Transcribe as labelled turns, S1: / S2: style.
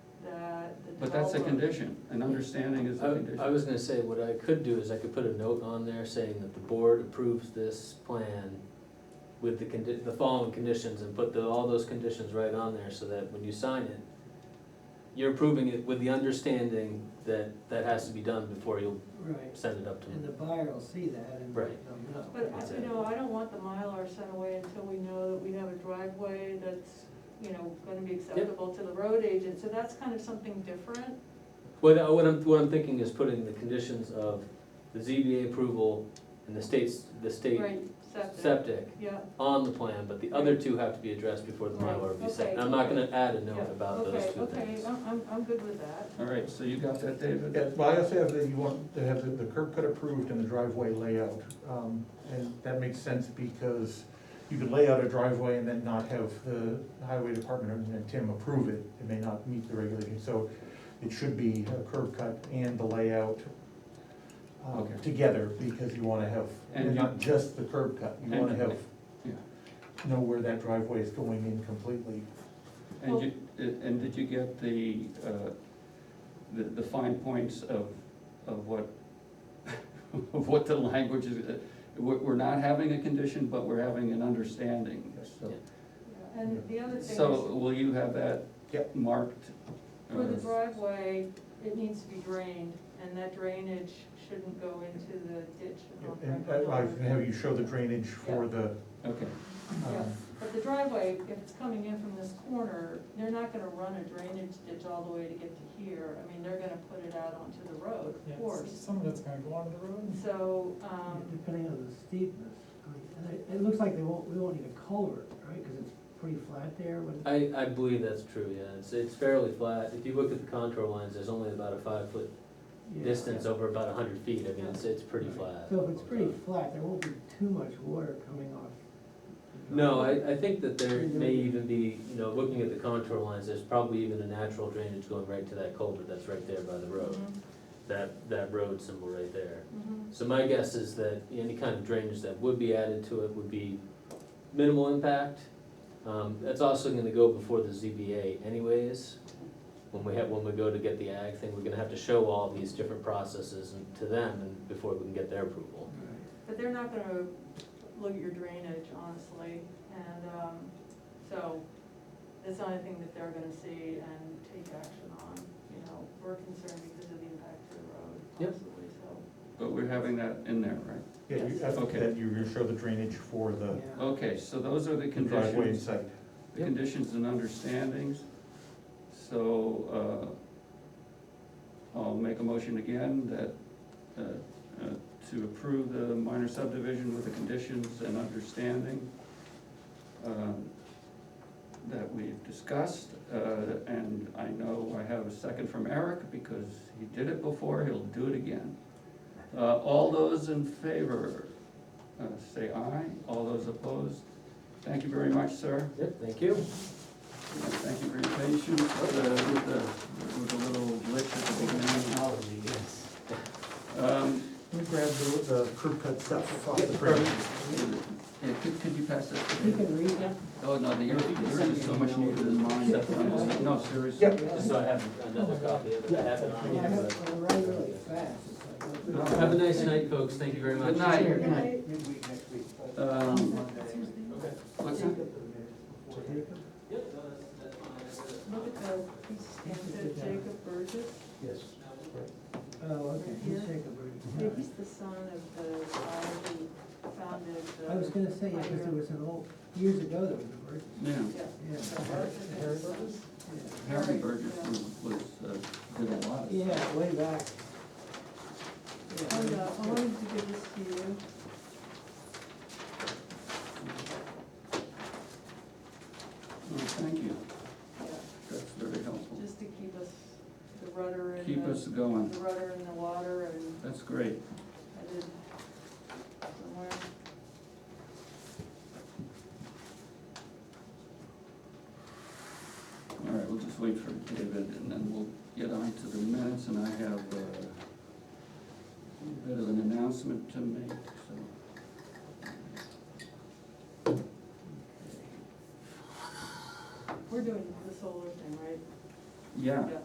S1: But that's a condition, an understanding is a
S2: I, I
S1: condition.
S2: was gonna say, what I could do is I could put a note on there saying that the board approves this plan with the condi, the following conditions and put the, all those conditions right on there so that when you sign it, you're approving it with the understanding that that has to be done before you'll
S3: Right,
S2: send it up to
S3: and
S2: them.
S3: the buyer will see that and
S2: Right.
S3: they'll know.
S4: But, I- you know, I don't want the Mylar sent away until we know that we have a driveway that's, you know, gonna be acceptable to the road agent, so that's kind of something different.
S2: What, I- what I'm, what I'm thinking is putting the conditions of the ZBA approval and the state's, the state
S4: Right, septic,
S2: septic
S4: yeah,
S2: on the plan, but the other two have to be addressed before the
S4: Right,
S2: Mylar is
S4: okay.
S2: sent. And I'm not gonna add a
S4: yeah,
S2: note about
S4: okay,
S2: Uh, those two
S4: okay,
S2: things.
S4: I'm, I'm, I'm good with that.
S1: All right, so you got that, David?
S5: Yeah, well, I also have that you want to have the- the curb cut approved and the driveway layout. Um, And that makes sense because you could lay out a driveway and then not have the highway department and Tim approve it. It may not meet the regulations, so it should be a curb cut and the layout um,
S1: Okay.
S5: together because you wanna have,
S1: And you-
S5: not just the curb cut. You wanna
S1: And-
S5: have,
S1: Yeah.
S5: know where that driveway is going in completely.
S1: And you, and did you get the, uh, the, the fine points of, of what, of what the language is? uh, We're, we're not having a condition, but we're having an understanding, so.
S4: Yeah, And the other thing
S1: So
S4: is,
S1: will you have that
S5: Yep.
S1: marked?
S4: for the
S1: uh,
S4: driveway, it needs to be drained, and that drainage shouldn't go into the ditch. on
S5: And
S4: Franklin
S5: I
S4: Road.
S5: I have you show the drainage for the,
S1: Uh, Okay,
S4: Yeah,
S5: um,
S4: But the driveway, if it's coming in from this corner, they're not gonna run a drainage ditch all the way to get to here. I mean, they're gonna put it out onto the road,
S6: Yeah,
S4: of
S6: s-
S4: course.
S6: Some of that's gonna go onto the road.
S4: So, um,
S3: Depending on the steepness, I mean, and it, it looks like they won't, we won't need a culvert, right, cause it's pretty flat there, when
S2: I, I believe that's true, yeah, it's, it's fairly flat, if you look at the contour lines, there's only about a five foot
S3: yeah.
S2: distance over about a hundred feet, I mean, it's, it's pretty flat.
S3: So if it's pretty flat, there won't be too much water coming off.
S2: No, I, I think that there may even be, you know, looking at the contour lines, there's probably even a natural drainage going right to that culvert that's right there by the road,
S4: mhm,
S2: that, that road symbol right there.
S4: mhm.
S2: So my guess is that any kind of drainage that would be added to it would be minimal impact. Um, that's also gonna go before the ZBA anyways. When we have, when we go to get the ag thing, we're gonna have to show all these different processes and- to them and before we can get their approval.
S3: Right.
S4: but they're not gonna look at your drainage, honestly. And, um, so that's not anything that they're gonna see and take action on, you know. We're concerned because of the impact to the road,
S2: Yep.
S4: possibly, so.
S1: but we're having that in there, right?
S5: yeah, you,
S4: Yes.
S5: I think
S1: Okay.
S5: that you're gonna show the drainage for the.
S3: Yeah.
S1: Okay, so those are the
S5: The driveway
S1: conditions,
S5: site.
S1: the conditions and understandings. So, uh, I'll make a motion again that, uh, uh, to approve the minor subdivision with the conditions and understanding um, that we've discussed, uh, and I know I have a second from Eric, because he did it before, he'll do it again. Uh, all those in favor, uh, say aye, all those opposed, thank you very much, sir.
S2: Yep, thank you.
S1: Thank you for your patience with the, with the, with the little glitch at the beginning. Um,
S5: Let me grab the, the curb cut stuff off the
S1: Perfect.
S5: print.
S1: Yeah, could, could you pass that? to
S3: You
S1: me?
S3: can read that,
S1: Oh, no, the yours yours is so much neater than mine. No, seriously.
S2: Just so I have another copy of it, I have it on
S3: I
S2: hand,
S3: have,
S2: but-
S3: I write really fast, it's like.
S2: Have a nice night, folks, thank you very much.
S1: Good night.
S3: Here, can I-
S4: Okay.
S3: midweek next week.
S1: Um,
S3: Monday.
S2: Okay.
S1: What's
S3: Take
S1: that?
S3: up the minutes before- take up
S2: Yep, no, that's, that's fine.
S4: Look at the, he's stamped it, Jacob Burgess.
S5: Yes.
S3: Oh, okay,
S4: Yeah.
S3: he's Jacob Burgess.
S4: Yeah, He's the son of the guy who founded the.
S3: I was gonna say, yeah, because there was an old, years ago, there was a bird,
S1: Yeah,
S4: Yeah.
S3: yeah.
S4: Harry Burgess?
S3: yeah.
S1: Harry Burgess was, was, uh, did a lot.
S3: Yeah, way back.
S4: And, uh, I wanted to give this to you.
S1: Oh, Thank you,
S4: Yeah,
S1: that's very helpful.
S4: Just to keep us, the rudder in the.
S1: Keep us going,
S4: The rudder in the water and
S1: that's great.
S4: I did somewhere.
S1: All right, we'll just wait for David and then we'll get on to the minutes and I have uh, a bit of an announcement to make, so.
S4: We're doing the solar thing, right?
S1: Yeah,